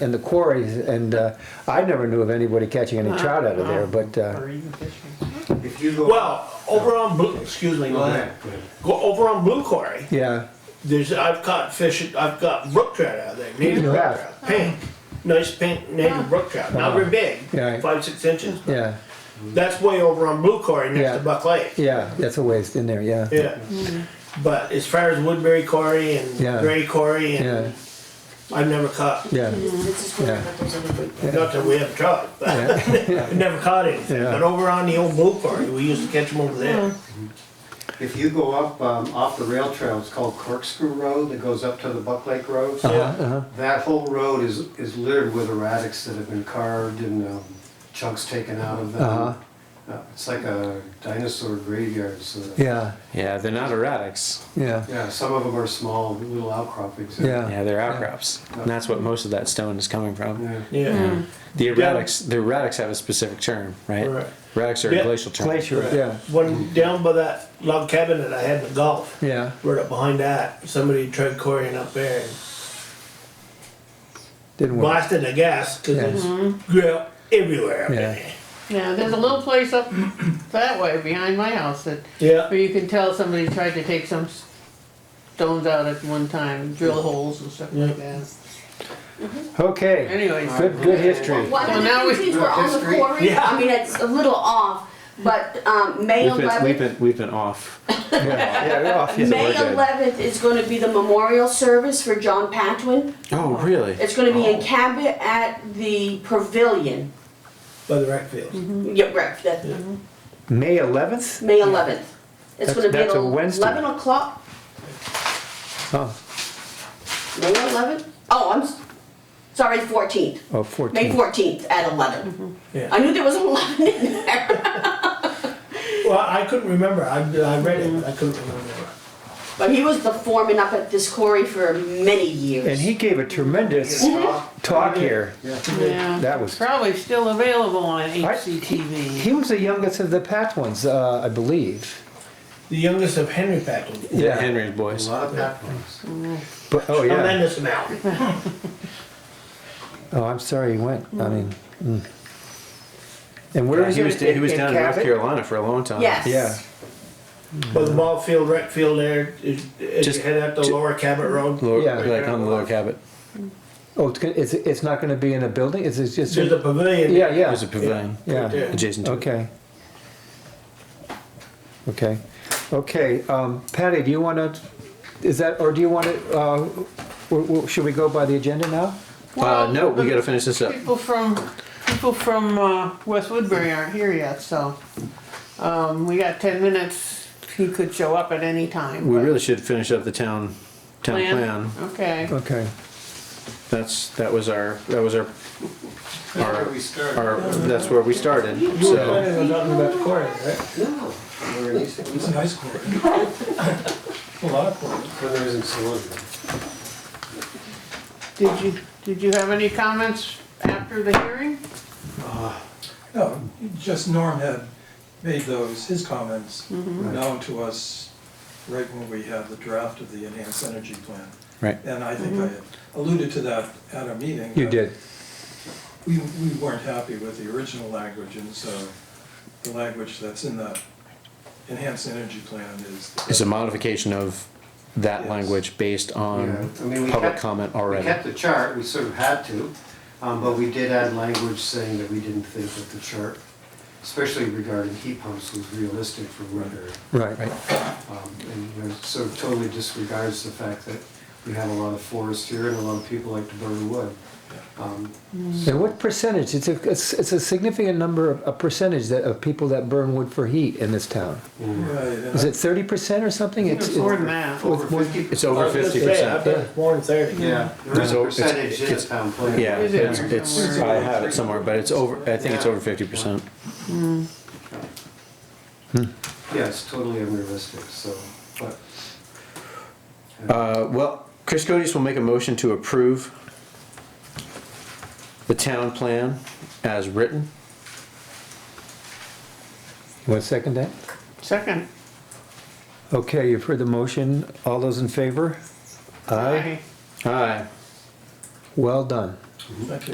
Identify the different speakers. Speaker 1: and the quarries, and uh, I never knew of anybody catching any trout out of there, but, uh,
Speaker 2: Or even fishing.
Speaker 3: If you go.
Speaker 4: Well, over on Blue,
Speaker 3: Excuse me, go ahead.
Speaker 4: go over on Blue Quarry,
Speaker 1: yeah,
Speaker 4: there's, I've caught fish, I've got brook trout out of there, native
Speaker 1: You
Speaker 4: brook
Speaker 1: have?
Speaker 4: trout, pink. Nice pink native brook trout, not very
Speaker 1: Yeah.
Speaker 4: big, five, six inches.
Speaker 1: yeah,
Speaker 4: That's way over on Blue Quarry
Speaker 1: Yeah.
Speaker 4: next to Buck Lake.
Speaker 1: yeah, that's a waste in there, yeah.
Speaker 4: Yeah. But as far as Woodbury Quarry and
Speaker 1: Yeah.
Speaker 4: Gray Quarry
Speaker 1: Yeah,
Speaker 4: and, I've never caught,
Speaker 1: yeah,
Speaker 5: This is where that there's any big-
Speaker 4: not that we haven't tried, but I've never caught anything.
Speaker 1: Yeah.
Speaker 4: But over on the old Blue Quarry, we used to catch them over there.
Speaker 3: If you go up, um, off the rail trail, it's called Corkscrew Road that goes up to the Buck Lake Road.
Speaker 1: uh-huh.
Speaker 3: That whole road is, is littered with erratics that have been carved and um, chunks taken out of
Speaker 1: Uh-huh.
Speaker 3: them. Uh, It's like a dinosaur graveyard, so.
Speaker 1: yeah,
Speaker 6: Yeah, they're not erratics.
Speaker 1: yeah,
Speaker 3: Yeah, some of them are small, little outcroppings.
Speaker 6: Yeah,
Speaker 1: Oh. yeah,
Speaker 6: they're outcrops. And that's what most of that stone is coming from.
Speaker 3: Yeah.
Speaker 4: Yeah.
Speaker 6: The erratics, the erratics have a specific term, right?
Speaker 4: Right.
Speaker 6: Erratics are
Speaker 4: Yeah.
Speaker 6: a glacial term.
Speaker 1: glacier, yeah,
Speaker 4: One down by that log cabin that I had in the Gulf.
Speaker 1: yeah,
Speaker 4: Right up behind that, somebody tried quarrying up there and
Speaker 1: didn't work,
Speaker 4: blasted the gas because
Speaker 1: Yeah.
Speaker 4: it's grill everywhere. up in
Speaker 1: Yeah.
Speaker 4: there.
Speaker 2: Yeah, there's a little place up that way behind my house that, where
Speaker 4: Yeah.
Speaker 2: you can tell somebody tried to take some s- stones out at one time, drill holes and stuff like that.
Speaker 1: okay,
Speaker 2: Anyways,
Speaker 1: good, good history.
Speaker 5: Well,
Speaker 2: So
Speaker 5: I
Speaker 2: now we-
Speaker 5: think since we're on the
Speaker 3: History.
Speaker 5: quarry,
Speaker 4: Yeah.
Speaker 5: I mean, it's a little off, but, um, May
Speaker 6: We've been, we've
Speaker 5: eleventh,
Speaker 6: been, we've been off.
Speaker 1: Yeah, we're off.
Speaker 5: May
Speaker 6: we're good.
Speaker 5: eleventh is gonna be the memorial service for John Patwin.
Speaker 6: Oh, really?
Speaker 5: It's gonna be
Speaker 1: Oh.
Speaker 5: in Cabot at the Pavilion.
Speaker 4: By the rec field.
Speaker 5: Yeah, right, that,
Speaker 1: May eleventh?
Speaker 5: May eleventh. It's
Speaker 1: That's-
Speaker 5: gonna be at
Speaker 1: that's a Wednesday.
Speaker 5: eleven o'clock,
Speaker 1: Oh,
Speaker 5: May eleventh? Oh, I'm, s- sorry, fourteenth,
Speaker 1: oh,
Speaker 5: May
Speaker 1: 14th.
Speaker 5: fourteenth at eleven.
Speaker 1: Mm-hmm.
Speaker 5: I
Speaker 4: Yeah.
Speaker 5: knew there was an eleven in there,
Speaker 4: Well, I couldn't remember. I, I read it. I couldn't remember.
Speaker 5: but he was the foreman up at this quarry for many years.
Speaker 1: And he gave a tremendous talk here.
Speaker 2: yeah.
Speaker 1: That was-
Speaker 2: Probably still available on HCTV.
Speaker 1: He was the youngest of the Pat ones, uh, I believe.
Speaker 4: The youngest of Henry Packard.
Speaker 6: Yeah,
Speaker 1: Yeah.
Speaker 6: Henry's
Speaker 3: A
Speaker 6: boys.
Speaker 3: lot of backgrounds.
Speaker 1: But, oh, yeah.
Speaker 4: Tremendous amount.
Speaker 1: Oh, I'm sorry he went. I mean, mm. and where
Speaker 6: Yeah,
Speaker 1: was
Speaker 6: he was,
Speaker 1: it?
Speaker 6: he was
Speaker 1: In- in
Speaker 6: down in North
Speaker 1: Cabot?
Speaker 6: Carolina for a long time.
Speaker 5: Yes.
Speaker 1: Yeah.
Speaker 4: But the ball field, rec field there, is- as
Speaker 6: Just-
Speaker 4: you head up the Lower Cabot Road,
Speaker 6: Lower,
Speaker 1: Yeah.
Speaker 6: Like on the lower cabot.
Speaker 1: Oh, it's, gonna- it's, it's not going to be in a building. It's, it's just.
Speaker 4: there's a pavilion.
Speaker 1: yeah, yeah.
Speaker 6: There's a pavilion
Speaker 1: yeah.
Speaker 4: Yeah.
Speaker 6: adjacent to it.
Speaker 1: Okay. Okay. Okay. Um, Patty, do you want to? Is that or do you want to? Uh, w- w- should we go by the agenda now?
Speaker 6: Uh, no, we
Speaker 2: Well,
Speaker 6: gotta finish this up.
Speaker 2: People from, people from, uh, West Woodbury aren't here yet, so, um, we got ten minutes. He could show up at any time.
Speaker 6: We
Speaker 2: but-
Speaker 6: really should finish up the town, town plan.
Speaker 2: Okay.
Speaker 1: Okay.
Speaker 6: That's, that was our, that was our,
Speaker 3: Where
Speaker 6: our,
Speaker 3: we start?
Speaker 6: our, that's where we started,
Speaker 4: You were
Speaker 6: so.
Speaker 4: planning on talking about the quarry, right?
Speaker 3: No. We're in East,
Speaker 4: It's a nice quarry. A lot of quarry.
Speaker 3: when there isn't someone.
Speaker 2: Did you, did you have any comments after the hearing?
Speaker 7: No, just Norm had made those, his comments known to us right when we had the draft of the enhanced energy plan.
Speaker 6: Right.
Speaker 7: And I think I alluded to that at a meeting.
Speaker 1: You
Speaker 7: that
Speaker 1: did.
Speaker 7: We, we weren't happy with the original language, and so the language that's in the enhanced energy plan is. the
Speaker 6: It's a modification of that
Speaker 7: Yes.
Speaker 6: language based
Speaker 3: Yeah,
Speaker 6: on
Speaker 3: I mean, we
Speaker 6: public
Speaker 3: kept-
Speaker 6: comment
Speaker 3: We
Speaker 6: already.
Speaker 3: kept the chart, we sort of had to, um, but we did add language saying that we didn't think that the chart, especially regarding heat pumps, was realistic for weather.
Speaker 1: Right. Right.
Speaker 3: Um, And you know, sort of totally disregards the fact that we have a lot of forests here and a lot of people like to burn wood. Um,
Speaker 1: And what percentage? It's a it's, it's a significant number of a percentage that of people that burn wood for heat in this town.
Speaker 3: and
Speaker 7: Right, and
Speaker 1: Is it thirty percent or something? It's,
Speaker 2: It's more than that.
Speaker 3: Over
Speaker 1: With- with-
Speaker 3: fifty.
Speaker 6: It's over
Speaker 4: I was gonna
Speaker 6: fifty
Speaker 4: say, I
Speaker 6: percent.
Speaker 4: bet it's more than thirty.
Speaker 3: Yeah, there is a
Speaker 6: So it's-
Speaker 3: percentage in the
Speaker 6: it's-
Speaker 3: town plan.
Speaker 6: Yeah,
Speaker 2: Is it?
Speaker 6: it's, it's, I have it somewhere, but it's over, I think it's over fifty percent.
Speaker 3: Yeah, it's totally unrealistic, so, but,
Speaker 6: Uh, well, Chris Codis will make a motion to approve the town plan as written.
Speaker 1: You want to second that?
Speaker 2: Second.
Speaker 1: Okay, you've heard the motion. All those in favor? Aye.
Speaker 6: Aye.
Speaker 1: Well done.
Speaker 7: Thank you.